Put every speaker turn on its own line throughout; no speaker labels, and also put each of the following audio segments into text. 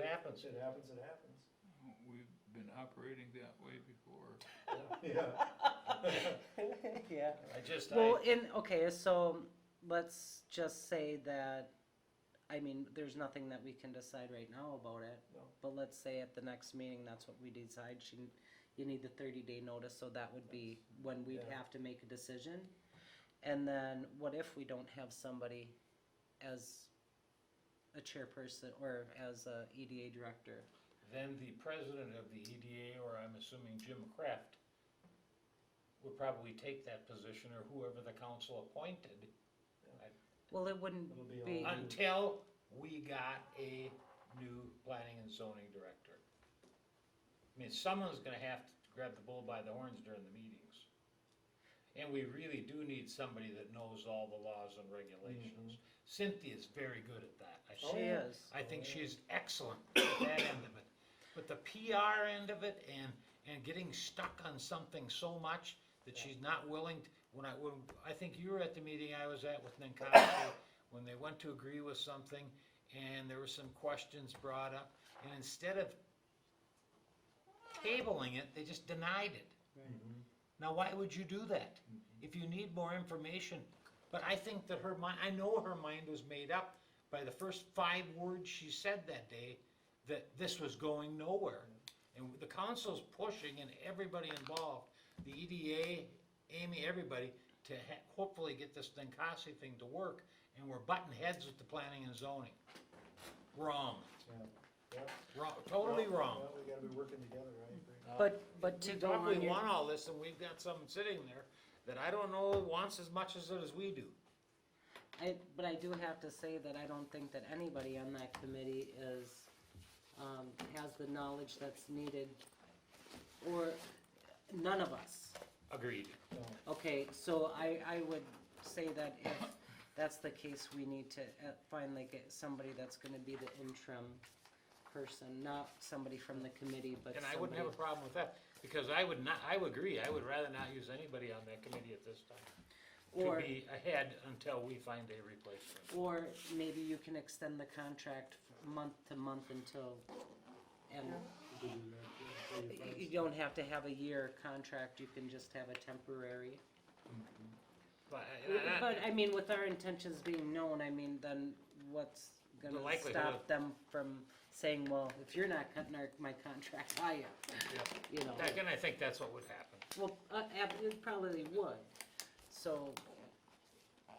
happens, it happens, it happens.
We've been operating that way before.
Yeah,
Yeah.
I just, I,
Well, in, okay, so let's just say that, I mean, there's nothing that we can decide right now about it.
No.
But let's say at the next meeting, that's what we decide, she, you need the thirty day notice, so that would be when we'd
Yeah.
have to make a decision. And then what if we don't have somebody as a chairperson or as a EDA director?
then the president of the EDA, or I'm assuming Jim Kraft, would probably take that position, or whoever the council appointed,
Well, it wouldn't
It'll be
be,
on-
until we got a new planning and zoning director. I mean, someone's gonna have to grab the bull by the horns during the meetings. And we really do need somebody that knows all the laws and regulations. Cynthia's very good at that. I
she
think.
yeah.
is.
I think she's excellent at that end of it. But the PR end of it and, and getting stuck on something so much that she's not willing, to- when I, when, I think you were at the meeting I was at with Ninkasi, when they went to agree with something and there were some questions brought up, and instead of tabling it, they just denied it.
Mm-hmm.
Now, why would you do that? If you need more information, but I think that her mind, I know her mind was made up by the first five words she said that day, that this was going nowhere. And the council's pushing and everybody involved, the EDA, Amy, everybody, to ha- hopefully get this Ninkasi thing to work, and we're butting heads with the planning and zoning. Wrong,
yeah.
wrong, totally
Well,
wrong.
well, We gotta be working together, I agree.
But, but to
We
go on
probably
your
want all this, and we've got some sitting there that I don't know wants as much as it as we do.
I, but I do have to say that I don't think that anybody on that committee is, um, has the knowledge that's needed, or, none of us.
Agreed.
Okay, so I, I would say that if that's the case, we need to uh, finally get somebody that's gonna be the interim person, not somebody from the committee, but
And
somebody.
I wouldn't have a problem with that, because I would not, I would agree, I would rather not use anybody on that committee at this time.
Or-
To be ahead until we find a replacement.
Or maybe you can extend the contract f- month to month until, and y- you don't have to have a year contract, you can just have a temporary.
But, I- and I-
But I mean, with our intentions being known, I mean, then what's
The
gonna
likelihood
stop
of-
them from saying, well, if you're not cutting our, my contract, I am,
yeah,
you know?
that- and I think that's what would happen.
Well, uh, ab- it probably would, so,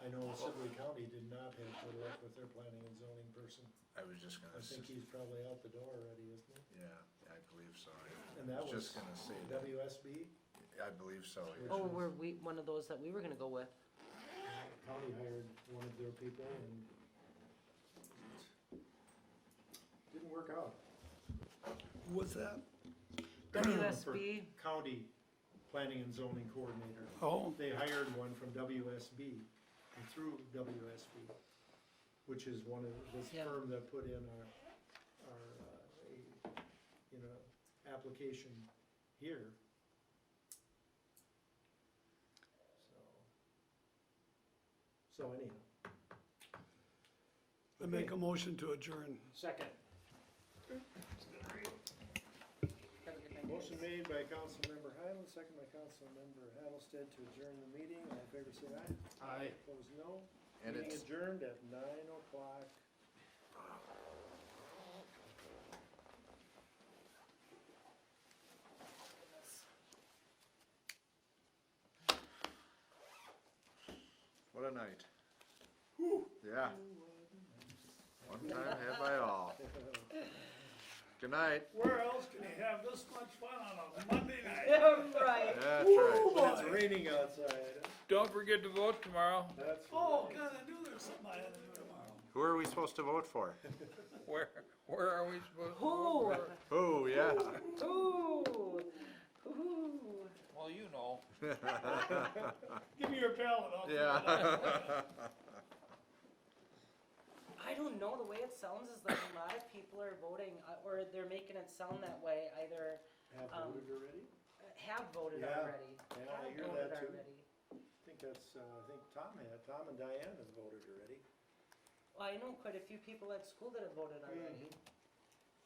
I know Sibley County did not have good luck with their planning and zoning person.
I was just gonna,
I
s-
think he's probably out the door already, isn't he?
yeah, I believe so. I
And that
was
was
just gonna say that,
WSB,
I believe so. yeah.
oh, were we, one of those that we were gonna go with?
county hired one of their people and didn't work out.
What's that?
WSB,
County Planning and Zoning Coordinator.
Oh.
They hired one from WSB, and through WSB, which is one of, this
Yeah.
firm that put in our, our, uh, a- you know, application here. So, so anyhow.
I make a motion to adjourn.
Second.
Motion made by Councilmember Highland, second by Councilmember Hattlestead to adjourn the meeting. All in favor, say aye. Aye. Opposed, no.
And
Meeting
it's-
adjourned at nine o'clock.
What a night. Yeah. One time had by all. Good night.
Where else can you have this much fun on a Monday night?
right.
That's right.
But it's raining outside.
Don't forget to vote tomorrow.
That's
Oh,
right.
God, I knew there was something I had to do tomorrow.
Who are we supposed to vote for?
Where, where are we supposed to
Ooh.
vote? for?
Oh, yeah.
Ooh, ooh.
Well, you know.
Give me your ballot, I'll. fill it out.
Yeah.
I don't know, the way it sounds is like a lot of people are voting, uh, or they're making it sound that way, either
Have
Um,
voted already?
have voted
Yeah.
already.
Yeah, I
have
hear that
voted
too.
already.
I think that's, uh, I think Tom had, Tom and Diane have voted already.
Well, I know quite a few people at school that have voted already.